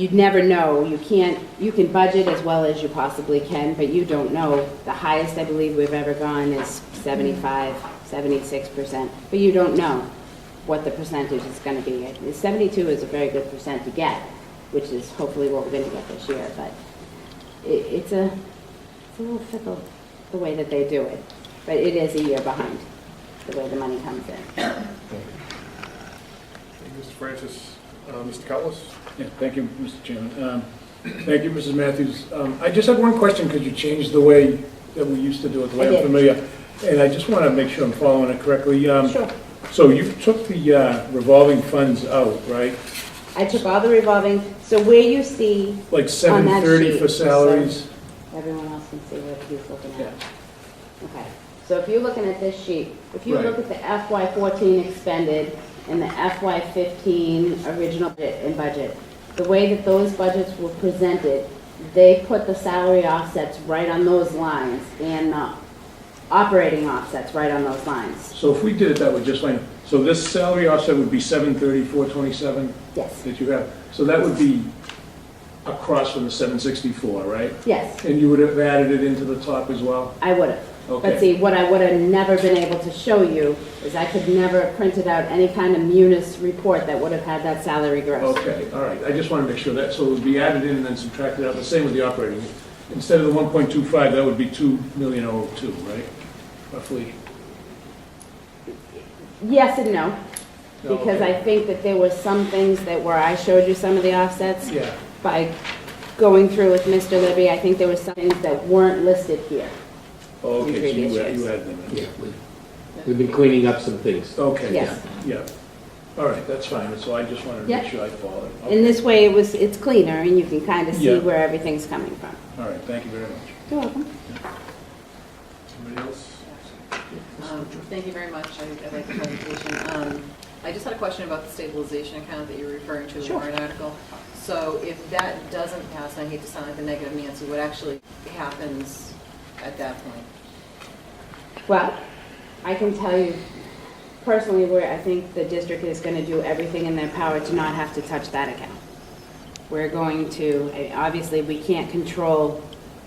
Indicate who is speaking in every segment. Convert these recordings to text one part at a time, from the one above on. Speaker 1: you'd never know. You can't, you can budget as well as you possibly can, but you don't know. The highest I believe we've ever gone is 75, 76%, but you don't know what the percentage is going to be. And 72 is a very good percent to get, which is hopefully what we're going to get this year, but it, it's a, it's a little fickle, the way that they do it. But it is a year behind, the way the money comes in.
Speaker 2: Thank you, Mr. Francis, Uh, Mr. Cutlass?
Speaker 3: Yeah, thank you, Mr. Chairman. Um, Thank you, Mrs. Matthews. Um, I just had one question, because you changed the way that we used to do it, the
Speaker 1: I
Speaker 3: way
Speaker 1: did.
Speaker 3: I'm familiar. And I just want to make sure I'm following it correctly. Um,
Speaker 1: Sure.
Speaker 3: So you took the uh, revolving funds out, right?
Speaker 1: I took all the revolving, so where you see,
Speaker 3: Like
Speaker 1: On that
Speaker 3: 730 for
Speaker 1: sheet, so-
Speaker 3: salaries?
Speaker 1: everyone else can see what he's looking at. Okay, so if you're looking at this sheet, if you
Speaker 3: Right.
Speaker 1: look at the FY fourteen expended and the FY fifteen original budget and budget, the way that those budgets were presented, they put the salary offsets right on those lines and the operating offsets right on those lines.
Speaker 3: So if we did it that way, just fine. So this salary offset would be 730, 427
Speaker 1: Yes,
Speaker 3: that you have. So that would be across from the 764, right?
Speaker 1: yes,
Speaker 3: And you would have added it into the top as well?
Speaker 1: I would have.
Speaker 3: Okay.
Speaker 1: But see, what I would have never been able to show you is I could never have printed out any kind of munis report that would have had that salary gross.
Speaker 3: Okay, all right, I just want to make sure that, so it would be added in and then subtracted out, the same with the operating. Instead of the one point two five, that would be two million oh two, right? Roughly.
Speaker 1: Yes and no.
Speaker 3: No,
Speaker 1: Because I
Speaker 3: okay.
Speaker 1: think that there were some things that were, I showed you some of the offsets
Speaker 3: Yeah,
Speaker 1: by going through with Mr. Libby. I think there were some things that weren't listed here.
Speaker 3: Oh, okay, so
Speaker 1: previous
Speaker 3: you add-
Speaker 1: years.
Speaker 3: you added them in.
Speaker 4: Yeah, we- we've been cleaning up some things.
Speaker 3: Okay, yeah,
Speaker 1: Yes.
Speaker 3: yeah. All right, that's fine, so I just wanted to
Speaker 1: Yeah.
Speaker 3: make sure I followed.
Speaker 1: In this way, it was, it's cleaner and you can kind of see
Speaker 3: Yeah.
Speaker 1: where everything's coming from.
Speaker 3: All right, thank you very much.
Speaker 1: You're welcome.
Speaker 2: Somebody else?
Speaker 5: Um, Thank you very much. I- I like the presentation. Um, I just had a question about the stabilization account that you were referring to, the
Speaker 1: Sure.
Speaker 5: warrant article. So if that doesn't pass, and I hate to sound like a negative Nancy, what actually happens at that point?
Speaker 1: Well, I can tell you personally where I think the district is going to do everything in their power to not have to touch that account. We're going to, I- obviously, we can't control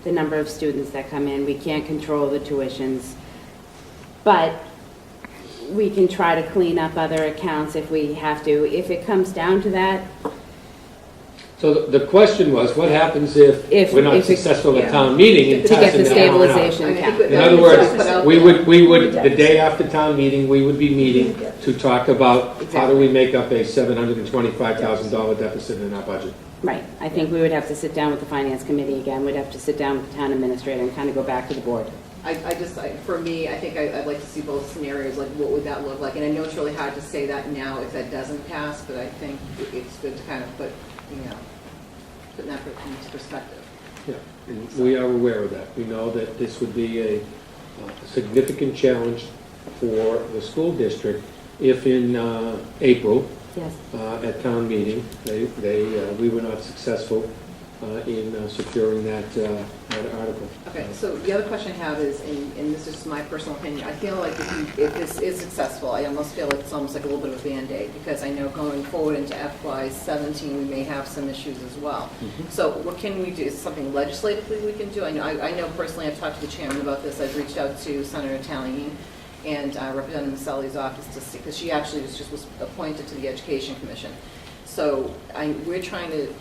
Speaker 1: the number of students that come in, we can't control the tuitions, but we can try to clean up other accounts if we have to. If it comes down to that,
Speaker 4: So the the question was, what happens if
Speaker 1: If-
Speaker 4: we're not
Speaker 1: if it-
Speaker 4: successful
Speaker 1: yeah.
Speaker 4: at town meeting
Speaker 1: to
Speaker 4: and
Speaker 1: get
Speaker 4: passing
Speaker 1: the
Speaker 4: that warrant out?
Speaker 1: stabilization
Speaker 5: I think
Speaker 1: account.
Speaker 4: In
Speaker 5: that
Speaker 4: other
Speaker 5: was
Speaker 4: words,
Speaker 5: put out
Speaker 4: we
Speaker 5: there.
Speaker 4: would, we would, the day after town meeting, we would be meeting to talk about how do we make up a seven hundred and twenty-five thousand dollar deficit in our budget.
Speaker 1: Right, I think we would have to sit down with the finance committee again, we'd have to sit down with the town administrator and kind of go back to the board.
Speaker 5: I, I just, I, for me, I think I, I'd like to see both scenarios, like what would that look like? And I know it's really hard to say that now if that doesn't pass, but I think it- it's good to kind of put, you know, put that into perspective.
Speaker 4: Yeah, and we are aware of that. We know that this would be a uh, significant challenge for the school district if in uh, April,
Speaker 1: Yes.
Speaker 4: uh, at town meeting. They, they, uh, we were not successful uh, in uh, securing that, uh, that article.
Speaker 5: Okay, so the other question I have is, and, and this is just my personal opinion, I feel like if you, if this is successful, I almost feel like it's almost like a little bit of a Band-Aid, because I know going forward into FY seventeen, we may have some issues as well. So what can we do, is something legislatively we can do? I know, I, I know personally, I've talked to the chairman about this, I've reached out to Senator Talley and uh, Representative Sully's office to see, because she actually was just, was appointed to the Education Commission. So I, we're trying to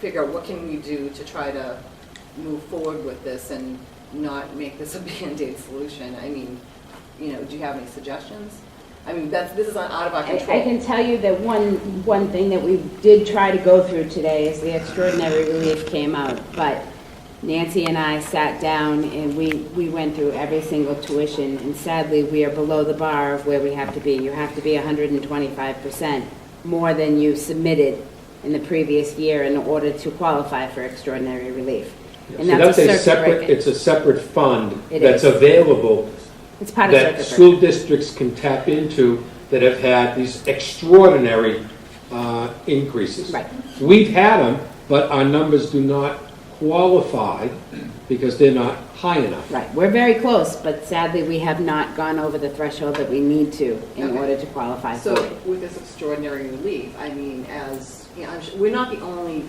Speaker 5: figure out what can we do to try to move forward with this and not make this a Band-Aid solution? I mean, you know, do you have any suggestions? I mean, that's, this is out of our
Speaker 1: I
Speaker 5: control.
Speaker 1: I can tell you that one, one thing that we did try to go through today is the extraordinary relief came out, but Nancy and I sat down and we, we went through every single tuition, and sadly, we are below the bar of where we have to be. You have to be hundred and twenty-five percent more than you submitted in the previous year in order to qualify for extraordinary relief. And
Speaker 4: So
Speaker 1: that's a circuit
Speaker 4: separate.
Speaker 1: breaker.
Speaker 4: It's a separate fund
Speaker 1: It
Speaker 4: that's
Speaker 1: is.
Speaker 4: available
Speaker 1: It's part of
Speaker 4: that
Speaker 1: circuit breaker.
Speaker 4: school districts can tap into that have had these extraordinary uh, increases.
Speaker 1: Right.
Speaker 4: We've had them, but our numbers do not qualify because they're not high enough.
Speaker 1: Right, we're very close, but sadly, we have not gone over the threshold that we need to in
Speaker 5: Okay.
Speaker 1: order to qualify for
Speaker 5: So
Speaker 1: it.
Speaker 5: with this extraordinary relief, I mean, as, you know, I'm su- we're not the only